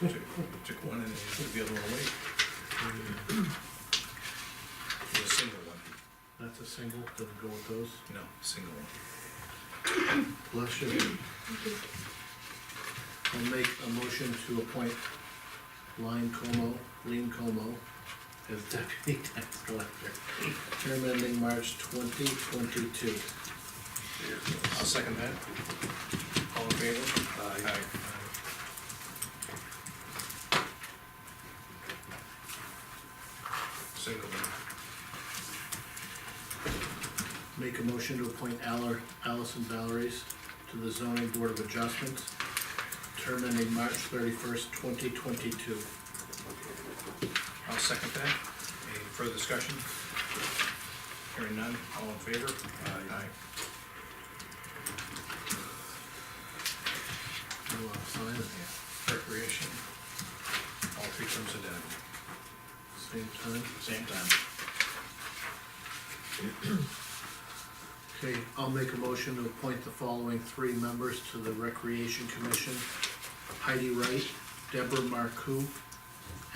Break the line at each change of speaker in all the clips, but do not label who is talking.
Took took one and put the other one away.
Mm,
It was a single one,
That's a single, doesn't go with those.
no, single one.
Bless you. I'll make a motion to appoint Lynn Como, Lean Como, as deputy tax collector. Term ending March twenty twenty-two.
I'll second that. All in favor? Aye. Single one.
Make a motion to appoint Aller, Allison Valeries to the zoning board of adjustments. Term ending March thirty-first, twenty twenty-two.
I'll second that. Any further discussion? Hearing none, all in favor? Aye.
No, I'll sign it.
Recreation. All three terms identical.
Same time.
Same time.
Okay, I'll make a motion to appoint the following three members to the Recreation Commission. Heidi Wright, Deborah Marcoux,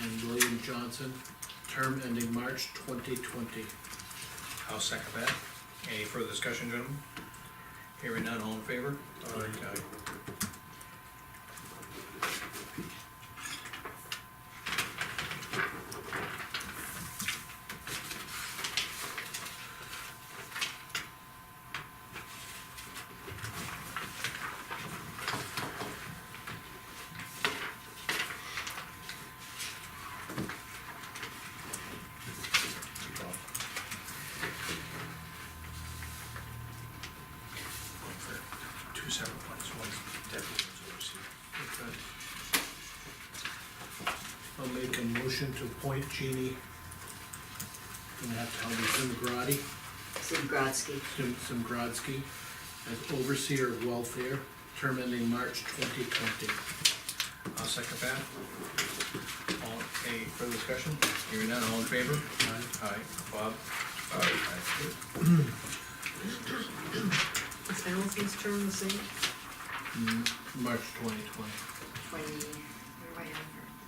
and William Johnson, term ending March twenty twenty.
I'll second that. Any further discussion, gentlemen? Hearing none, all in favor? Aye. Two separate ones, one's deputy, one's overseer.
I'll make a motion to appoint Jeannie. Gonna have to help me, Zimgrati,
Zimbrowski,
Zim, Zimgrodsky, as overseer of welfare, term ending March twenty twenty.
I'll second that. All, any further discussion? Hearing none, all in favor? Aye. Bob? Aye.
is Allison's term the same?
Mm, March twenty twenty.
Twenty,
Where do I have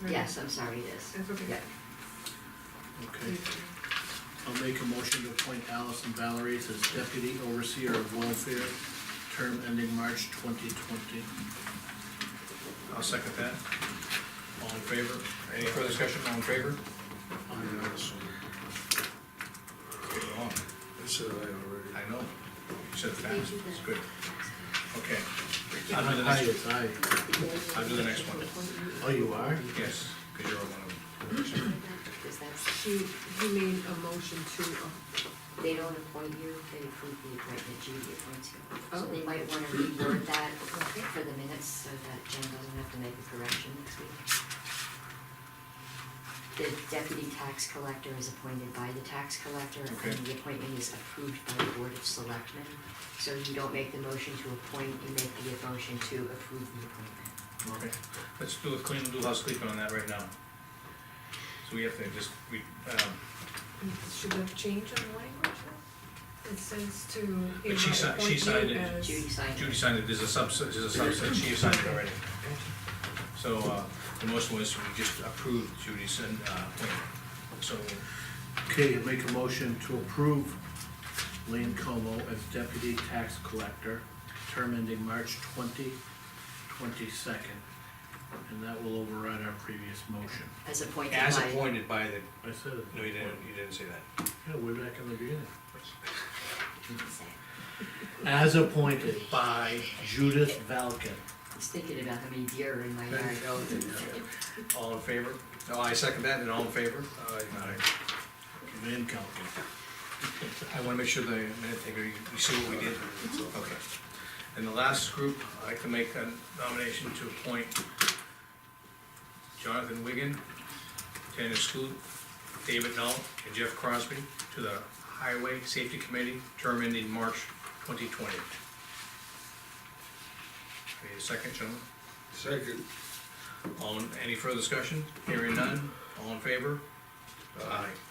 her?
yes, I'm sorry, it is.
That's okay.
Yeah.
Okay. I'll make a motion to appoint Allison Valeries as deputy overseer of welfare, term ending March twenty twenty.
I'll second that. All in favor? Any further discussion, all in favor? Let's get along.
I said I already.
I know. You said
Thank
fast,
you,
it's good.
Ben.
Okay.
Aye,
I'll do the next one.
aye.
I'll do the next one.
Oh, you are?
Yes, because you're one of them.
Because that's,
She, he made a motion to, uh,
they don't appoint you, they approve the appointment, Judy appoints you. So
Oh.
they might wanna reword that
Okay.
for the minutes, so that Jen doesn't have to make a correction next week. The deputy tax collector is appointed by the tax collector,
Okay.
and the appointment is approved by the board of selectmen. So you don't make the motion to appoint, you make the motion to approve the appointment.
Okay, let's do a clean, do housekeeping on that right now. So we have to just, we, um,
should we change on language? It says to. hereby
But she si- she
appoint you
signed it.
as-
Judy signed it.
Judy signed it, there's a subset, there's a subset, she signed it already. So, uh, the motion was we just approved Judy's, uh, appointment. So,
Okay, I make a motion to approve Lane Como as deputy tax collector, term ending March twenty twenty-second. And that will override our previous motion.
As appointed by.
as appointed by the,
I said it.
no, you didn't, you didn't say that.
Yeah, way back in the beginning. As appointed by Judith Valken.
I was thinking about how many deer are in my yard.
All in favor? No, I second that, and all in favor? Aye.
Van Kalken.
I wanna make sure the minute taker, you you see what we did? Okay. And the last group, I'd like to make a nomination to appoint Jonathan Wigan, Tanner Scoot, David Null, and Jeff Crosby to the Highway Safety Committee, term ending March twenty twenty. Need a second, gentlemen?
Second.
All, in- any further discussion? Hearing none, all in favor? Aye.